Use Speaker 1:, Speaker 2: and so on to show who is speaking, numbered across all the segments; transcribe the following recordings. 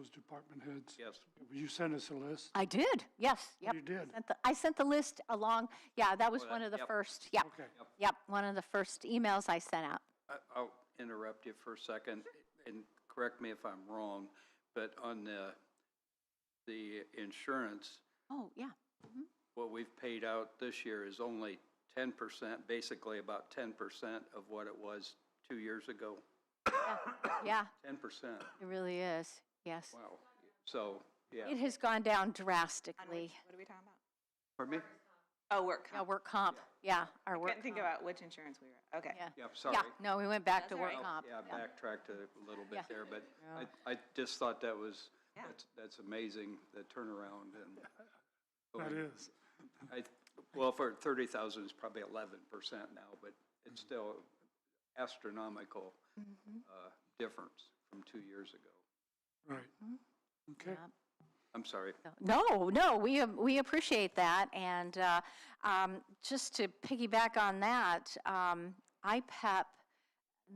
Speaker 1: those department heads.
Speaker 2: Yes.
Speaker 1: You sent us a list.
Speaker 3: I did, yes, yep.
Speaker 1: You did.
Speaker 3: sent the- I sent the list along, yeah, that was
Speaker 2: Oh, that-
Speaker 3: one of the
Speaker 2: yep.
Speaker 3: first, yep.
Speaker 1: Okay.
Speaker 3: Yep, one of the first emails I sent out.
Speaker 2: I- I'll interrupt you for a second, and correct me if I'm wrong, but on the, the insurance,
Speaker 3: Oh, yeah,
Speaker 2: what we've paid out this year is only ten percent, basically about ten percent of what it was two years ago.
Speaker 3: yeah,
Speaker 2: Ten percent,
Speaker 3: it really is, yes.
Speaker 2: wow. So, yeah,
Speaker 3: It has gone down drastically.
Speaker 4: What are we talking about?
Speaker 2: pardon me?
Speaker 4: Oh, work
Speaker 3: Yeah,
Speaker 4: comp.
Speaker 3: work comp, yeah, our work
Speaker 4: Couldn't think
Speaker 3: comp,
Speaker 4: about which insurance we were, okay.
Speaker 3: Yeah,
Speaker 2: Yeah, sorry. Oh,
Speaker 3: yeah, no, we went back to
Speaker 4: all
Speaker 3: work
Speaker 4: right.
Speaker 3: comp.
Speaker 2: Yeah, I backtracked a little bit
Speaker 3: Yeah.
Speaker 2: there, but
Speaker 3: Yeah.
Speaker 2: I, I just thought that was,
Speaker 4: Yeah.
Speaker 2: that's, that's amazing, the turnaround and.
Speaker 1: That is.
Speaker 2: I, well, for thirty thousand, it's probably eleven percent now, but it's still astronomical, uh, difference from two years ago.
Speaker 1: Right. Okay.
Speaker 3: Yep.
Speaker 2: I'm sorry.
Speaker 3: No, no, we, um, we appreciate that, and uh, um, just to piggyback on that, um, IPEP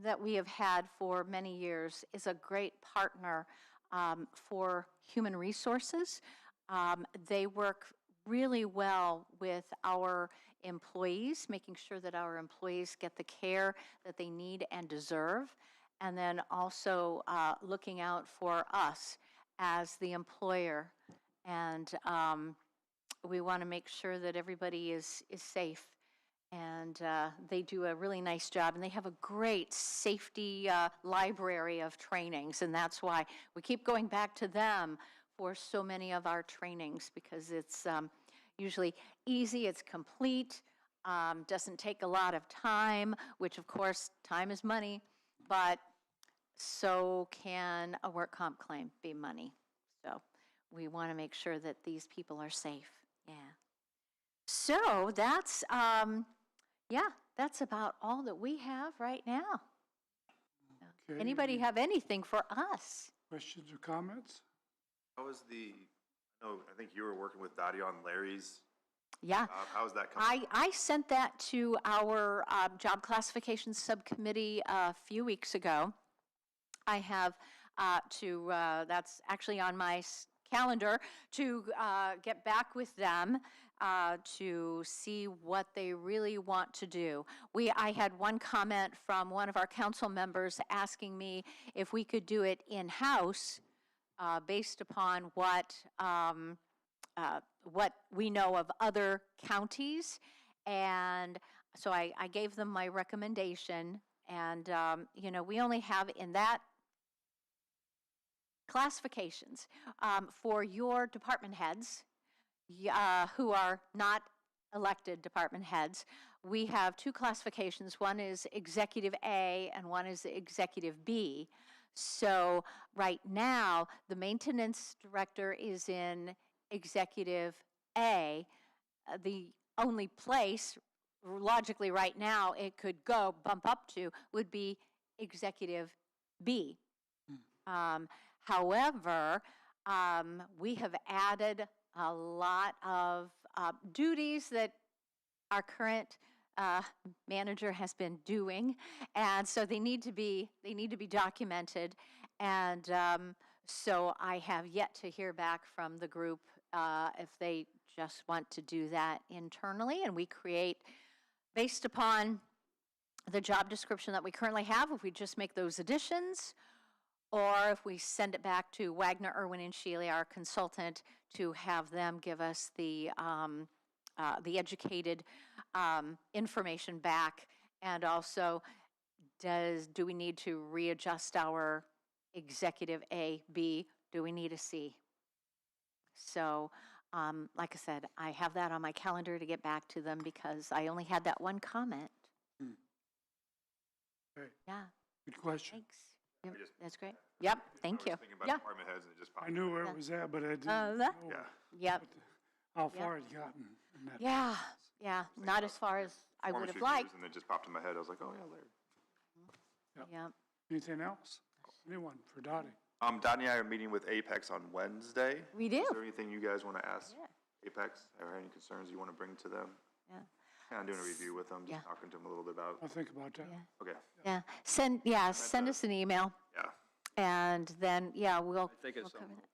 Speaker 3: that we have had for many years is a great partner um, for human resources. Um, They work really well with our employees, making sure that our employees get the care that they need and deserve, and then also uh, looking out for us as the employer. And um, we want to make sure that everybody is, is safe. And uh, they do a really nice job, and they have a great safety uh, library of trainings. And that's why we keep going back to them for so many of our trainings, because it's um, usually easy, it's complete, um, doesn't take a lot of time, which of course, time is money, but so can a work comp claim be money. So we want to make sure that these people are safe. Yeah. So that's, um, yeah, that's about all that we have right now.
Speaker 1: Okay,
Speaker 3: Anybody
Speaker 1: any
Speaker 3: have anything for us?
Speaker 1: Questions or comments?
Speaker 5: How is the, I know, I think you were working with Dottie on Larry's
Speaker 3: Yeah.
Speaker 5: job. How's that coming?
Speaker 3: I, I sent that to our um, Job Classification Subcommittee uh, a few weeks ago. I have uh, to, uh, that's actually on my s- calendar, to uh, get back with them uh, to see what they really want to do. We, I had one comment from one of our council members asking me if we could do it in-house uh, based upon what, um, uh, what we know of other counties. And so I, I gave them my recommendation. And, um, you know, we only have in that classifications um, for your department heads y- uh, who are not elected department heads. We have two classifications. One is Executive A and one is Executive B. So right now, the maintenance director is in Executive A. Uh, The only place logically right now it could go bump up to would be Executive B. Um, However, um, we have added a lot of uh, duties that our current uh, manager has been doing, and so they need to be they need to be documented. And um, so I have yet to hear back from the group uh, if they just want to do that internally, and we create based upon the job description that we currently have. If we just make those additions, or if we send it back to Wagner, Irwin, and Shealy, our consultant, to have them give us the, um, uh, the educated, um, information back. And also, does, do we need to readjust our executive A, B? Do we need a C? So, um, like I said, I have that on my calendar to get back to them because I only had that one comment.
Speaker 5: Hmm.
Speaker 1: Okay.
Speaker 3: Yeah,
Speaker 1: Good question.
Speaker 3: thanks. Yep,
Speaker 5: I just-
Speaker 3: That's great. Yep, thank
Speaker 5: I
Speaker 3: you.
Speaker 5: was thinking about
Speaker 3: Yeah.
Speaker 5: department heads and it just popped.
Speaker 1: I knew where
Speaker 3: Yeah.
Speaker 1: it was at, but I didn't
Speaker 3: Uh,
Speaker 1: know
Speaker 3: that-
Speaker 5: Yeah.
Speaker 3: Yep,
Speaker 1: how far it gotten. in that.
Speaker 3: yeah, yeah, not as far as I
Speaker 5: Former
Speaker 3: would have
Speaker 5: two years,
Speaker 3: liked.
Speaker 5: And it just popped in my head. I was like, oh, yeah, Larry.
Speaker 3: Yep,
Speaker 1: Anything else? Anyone for Dottie?
Speaker 5: Um, Dottie and I are meeting with Apex on Wednesday.
Speaker 3: We
Speaker 5: Is
Speaker 3: do.
Speaker 5: there anything you guys want to ask Apex or any concerns you want to bring to them?
Speaker 3: yeah,
Speaker 5: Kind of doing a review with them, just talking to them a little bit about,
Speaker 1: I'll think about that.
Speaker 3: yeah,
Speaker 5: okay,
Speaker 3: yeah. Send, yeah, send us an email.
Speaker 5: yeah.
Speaker 3: And then, yeah, we'll.
Speaker 2: I think it's
Speaker 3: we'll cover
Speaker 2: on
Speaker 3: that.